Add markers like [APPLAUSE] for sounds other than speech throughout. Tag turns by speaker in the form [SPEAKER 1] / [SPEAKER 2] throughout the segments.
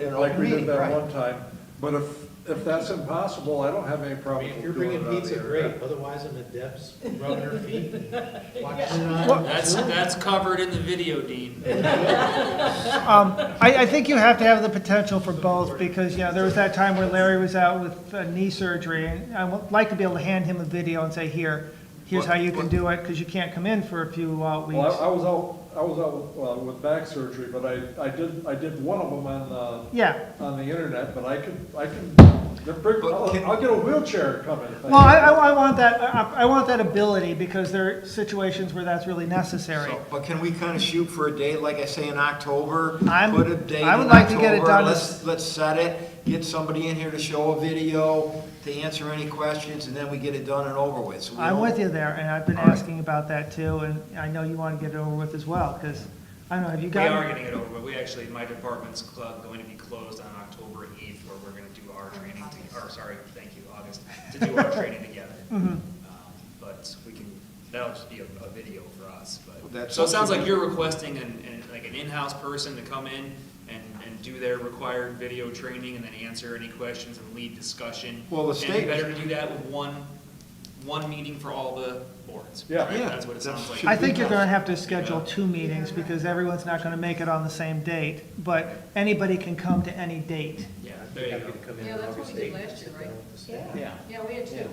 [SPEAKER 1] in
[SPEAKER 2] Oh,
[SPEAKER 3] like
[SPEAKER 1] open
[SPEAKER 3] we did
[SPEAKER 1] meeting,
[SPEAKER 3] that
[SPEAKER 1] right.
[SPEAKER 3] one time. But if, if that's impossible, I don't have any
[SPEAKER 4] I
[SPEAKER 3] problem
[SPEAKER 4] mean,
[SPEAKER 3] doing it
[SPEAKER 4] if you're
[SPEAKER 3] on
[SPEAKER 4] bringing
[SPEAKER 3] the
[SPEAKER 4] pizza,
[SPEAKER 3] internet.
[SPEAKER 4] great, otherwise I'm at Deb's rubbing her feet, [LAUGHS] and watching it
[SPEAKER 1] Well-
[SPEAKER 4] on.
[SPEAKER 5] That's, that's covered in the video, Dean.
[SPEAKER 2] Um, I, I think you have to have the potential for both, because, you know, there was that time where Larry was out with uh, knee surgery, and I would like to be able to hand him a video and say, here, here's how you can do it, because you can't come in for a few uh,
[SPEAKER 3] Well, I-
[SPEAKER 2] weeks.
[SPEAKER 3] I was out, I was out with, well, with back surgery, but I, I did, I did one of them on, uh,
[SPEAKER 2] Yeah,
[SPEAKER 3] on the internet, but I can, I can, they're bring- I'll, I'll get a wheelchair coming. if I
[SPEAKER 2] well, I,
[SPEAKER 3] can.
[SPEAKER 2] I I want that, I, I want that ability, because there are situations where that's really necessary.
[SPEAKER 1] So, But can we kind of shoot for a date, like I say, in October?
[SPEAKER 2] I'm-
[SPEAKER 1] Put a date
[SPEAKER 2] I would
[SPEAKER 1] in
[SPEAKER 2] like to get it
[SPEAKER 1] October,
[SPEAKER 2] done
[SPEAKER 1] Let's, let's set it, get somebody in here to show a video, to answer any questions, and then we get it done and over with. So we
[SPEAKER 2] I'm
[SPEAKER 1] don't-
[SPEAKER 2] with you there, and I've been
[SPEAKER 1] All right.
[SPEAKER 2] asking about that too, and I know you want to get it over with as well, because, I don't know, have you
[SPEAKER 5] We are
[SPEAKER 2] gotten?
[SPEAKER 5] getting it over, but we actually, my department's cl- going to be closed on October eighth, where we're gonna do our training, to- or sorry, thank you, August, to do our training together. Um, But we can, that'll just be a, a video for us, but,
[SPEAKER 1] That's
[SPEAKER 5] so it sounds
[SPEAKER 1] something-
[SPEAKER 5] like you're requesting an, an, like an in-house person to come in and, and do their required video training and then answer any questions and lead discussion.
[SPEAKER 1] Well, the
[SPEAKER 5] And
[SPEAKER 1] state-
[SPEAKER 5] it'd be better to do that with one, one meeting for all the boards.
[SPEAKER 3] Yeah.
[SPEAKER 5] right?
[SPEAKER 1] Yeah,
[SPEAKER 5] That's what it
[SPEAKER 1] that
[SPEAKER 5] sounds like.
[SPEAKER 1] should
[SPEAKER 2] I think you're gonna have to schedule two meetings, because everyone's not gonna make it on the same date, but anybody can come to any date.
[SPEAKER 5] Yeah,
[SPEAKER 4] I'd
[SPEAKER 5] there you go.
[SPEAKER 4] have to come in
[SPEAKER 6] Yeah,
[SPEAKER 4] on
[SPEAKER 6] that's what
[SPEAKER 4] August
[SPEAKER 6] we did
[SPEAKER 4] 8th and
[SPEAKER 6] last
[SPEAKER 4] sit down
[SPEAKER 6] year, right?
[SPEAKER 4] with the staff.
[SPEAKER 1] Yeah.
[SPEAKER 6] Yeah, we had two.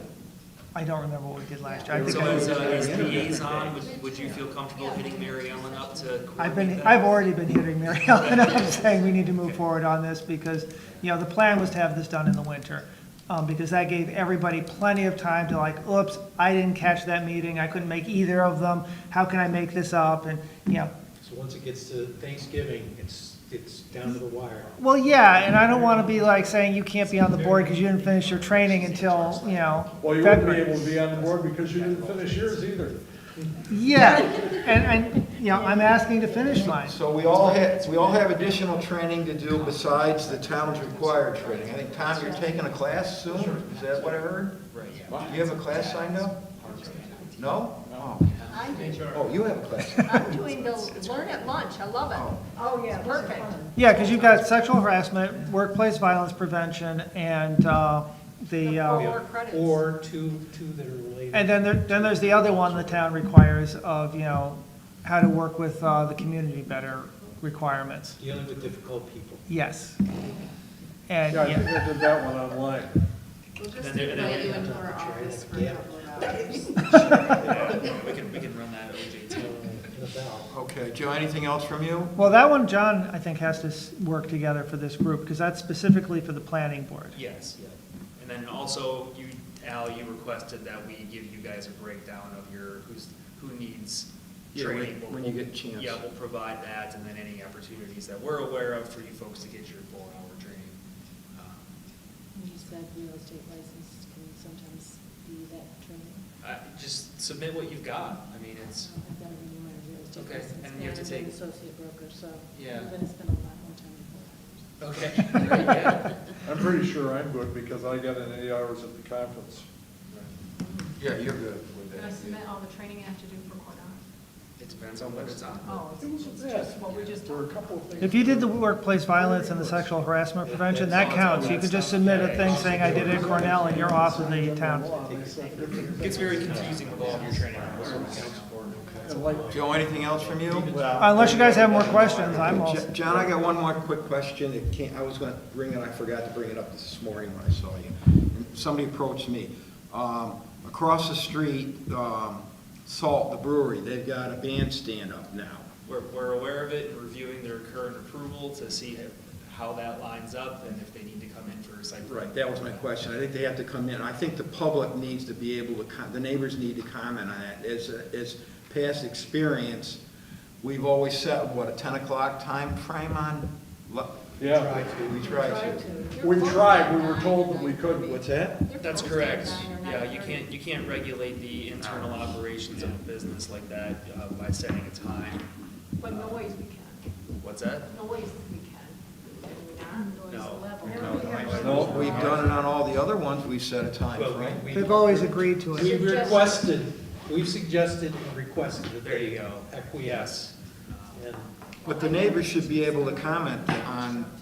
[SPEAKER 2] I don't remember what we did last year, I think
[SPEAKER 5] So
[SPEAKER 2] I
[SPEAKER 5] as,
[SPEAKER 2] was-
[SPEAKER 5] uh, as liaison, would, would you feel comfortable hitting Mary Ellen up to
[SPEAKER 2] I've been,
[SPEAKER 5] coordinate that?
[SPEAKER 2] I've already been hitting Mary [LAUGHS] Ellen, I'm saying we need to move forward on this, because, you know, the plan was to have this done in the winter, um, because that gave everybody plenty of time to like, oops, I didn't catch that meeting, I couldn't make either of them, how can I make this up, and, you know,
[SPEAKER 4] So once it gets to Thanksgiving, it's, it's down to the wire.
[SPEAKER 2] well, yeah, and I don't wanna be like saying you can't be on the board because you didn't finish your training until, you know,
[SPEAKER 3] Well, you wouldn't be
[SPEAKER 2] February.
[SPEAKER 3] able to be on the board because you didn't finish yours either.
[SPEAKER 2] Yeah, and, and, you know, I'm asking to finish mine.
[SPEAKER 1] So we all have, we all have additional training to do besides the town's required training. I think, Tom, you're taking a class soon, is that what I heard? Right. Do you have a class signed up? No? No.
[SPEAKER 6] I'm doing,
[SPEAKER 1] Oh, you have a class.
[SPEAKER 6] I'm doing the learn at lunch, I love it. Oh, yeah. Perfect.
[SPEAKER 2] Yeah, because you've got sexual harassment, workplace violence prevention, and uh, the,
[SPEAKER 6] Four
[SPEAKER 2] uh,
[SPEAKER 6] credits.
[SPEAKER 4] Or two, two that are related.
[SPEAKER 2] and then there, then there's the other one the town requires of, you know, how to work with uh, the community better requirements.
[SPEAKER 4] Dealing with difficult people.
[SPEAKER 2] Yes. And,
[SPEAKER 3] Yeah, I think
[SPEAKER 2] yeah,
[SPEAKER 3] I did that one online.
[SPEAKER 6] We'll just
[SPEAKER 5] Then they're-
[SPEAKER 6] invite
[SPEAKER 5] they're-
[SPEAKER 6] you into our office for a
[SPEAKER 3] [LAUGHS]
[SPEAKER 6] couple of hours.
[SPEAKER 5] Yeah,
[SPEAKER 2] [LAUGHS]
[SPEAKER 5] We can, we can run that OJ
[SPEAKER 4] uh,
[SPEAKER 5] too.
[SPEAKER 4] in a bell.
[SPEAKER 1] Okay, Joe, anything else from you?
[SPEAKER 2] well, that one, John, I think, has to s- work together for this group, because that's specifically for the planning board.
[SPEAKER 5] Yes, yeah. And then also, you, Al, you requested that we give you guys a breakdown of your, who's, who needs
[SPEAKER 1] Yeah, when-
[SPEAKER 5] training.
[SPEAKER 1] when you get a chance.
[SPEAKER 5] Yeah, we'll provide that, and then any opportunities that we're aware of for you folks to get your four-hour training. Um,
[SPEAKER 7] You said real estate license can sometimes be that training.
[SPEAKER 5] I- Just submit what you've got. I mean, it's,
[SPEAKER 7] I've got a renewal of real estate
[SPEAKER 5] Okay,
[SPEAKER 7] license.
[SPEAKER 5] and you have to
[SPEAKER 7] I'm an
[SPEAKER 5] take-
[SPEAKER 7] Associate broker, so.
[SPEAKER 5] Yeah.
[SPEAKER 7] I'm gonna spend a lot more time before.
[SPEAKER 5] okay. Right, yeah.
[SPEAKER 3] I'm pretty sure I'm good because I got in eight hours at the conference.
[SPEAKER 1] Yeah, you're good with
[SPEAKER 8] Did I submit
[SPEAKER 1] that.
[SPEAKER 8] all the training I have to do for Cordon?
[SPEAKER 5] It depends on what it's on.
[SPEAKER 8] Oh,
[SPEAKER 3] It was
[SPEAKER 8] it's
[SPEAKER 3] a
[SPEAKER 8] just what we just
[SPEAKER 3] There were a couple of things.
[SPEAKER 2] If you did the workplace violence and the sexual harassment prevention, that counts. You could just submit a thing saying, I did it at Cornell, and you're off of the town.
[SPEAKER 5] Gets very confusing with all of your training requirements.
[SPEAKER 3] And like,
[SPEAKER 1] Joe, anything else from you?
[SPEAKER 2] Unless you guys have more questions, I'm all,
[SPEAKER 1] Jo- John, I got one more quick question that can't, I was gonna bring it, I forgot to bring it up this morning when I saw you. And Somebody approached me. Um, across the street, um, Salt, the brewery, they've got a bandstand up now.
[SPEAKER 5] We're, we're aware of it and reviewing their current approval to see how that lines up and if they need to come in for a site. plan.
[SPEAKER 1] Right, that was my question. I think they have to come in. I think the public needs to be able to, con- the neighbors need to comment on that. As, as past experience, we've always set, what, a ten o'clock time frame on? lo-
[SPEAKER 3] Yeah,
[SPEAKER 1] We try to.
[SPEAKER 3] we tried, we were told that we couldn't.
[SPEAKER 1] What's that?
[SPEAKER 5] That's correct. Yeah, you can't, you can't regulate the internal operations of a business like that uh, by setting a time.
[SPEAKER 8] But noise we can,
[SPEAKER 5] What's that?
[SPEAKER 8] noise we can. Can we not?
[SPEAKER 5] No.
[SPEAKER 8] Noise level.
[SPEAKER 1] No, we've done it on all the other ones, we've set a time
[SPEAKER 4] Well, we-
[SPEAKER 1] frame.
[SPEAKER 4] we-
[SPEAKER 2] they've always agreed to it.
[SPEAKER 4] We requested, we've suggested and requested that
[SPEAKER 5] There you
[SPEAKER 4] they
[SPEAKER 5] go.
[SPEAKER 4] acquiesce. And
[SPEAKER 1] But the neighbors should be able to comment on